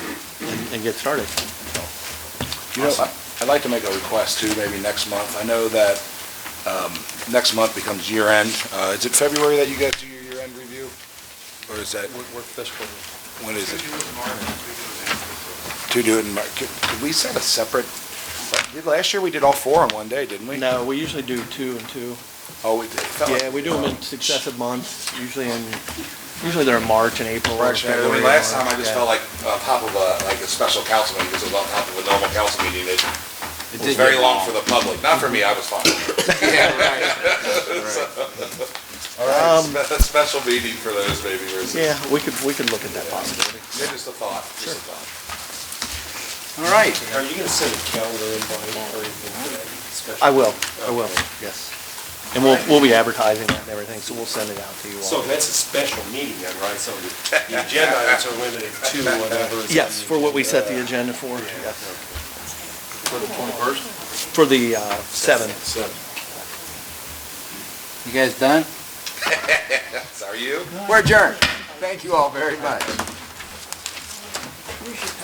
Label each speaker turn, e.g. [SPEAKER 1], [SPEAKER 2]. [SPEAKER 1] and get started.
[SPEAKER 2] You know, I'd like to make a request too, maybe next month. I know that um, next month becomes year end. Uh, Is it February that you guys do your year end review? Or is that,
[SPEAKER 3] We're fiscal.
[SPEAKER 2] when is it? To do it in, Mar- could could we set a separate, did- last year we did all four in one day, didn't we?
[SPEAKER 1] No, we usually do two and two.
[SPEAKER 2] Oh, we did. It felt like-
[SPEAKER 1] Yeah, we do them in successive months, usually in, usually they're in March and April. or
[SPEAKER 2] Correction. I mean,
[SPEAKER 1] February
[SPEAKER 2] last
[SPEAKER 1] or-
[SPEAKER 2] time I just
[SPEAKER 1] yeah.
[SPEAKER 2] felt like on top of a, like a special council meeting, this was on top of a normal council meeting. It was
[SPEAKER 3] It
[SPEAKER 2] very long for the public. Not for me, I was fine. All right, spe- special meeting for those maybe versus.
[SPEAKER 1] Yeah, we could, we could look at that possibility.
[SPEAKER 2] Yeah, Just a thought, just a thought.
[SPEAKER 3] All right.
[SPEAKER 4] Are you gonna send a calendar invite or anything?
[SPEAKER 1] I will, I will, yes. And we'll, we'll be advertising that and everything, so we'll send it out to you all.
[SPEAKER 4] So that's a special meeting then, right? So the agenda items are limited to whatever. is on
[SPEAKER 1] Yes,
[SPEAKER 4] the
[SPEAKER 1] for what we
[SPEAKER 4] agenda.
[SPEAKER 1] set the agenda for, yes.
[SPEAKER 3] For the twenty-first.
[SPEAKER 1] For the, uh, seventh.
[SPEAKER 4] So,
[SPEAKER 3] You guys done?
[SPEAKER 2] Yes, Are you?
[SPEAKER 3] We're adjourned. Thank you all very much.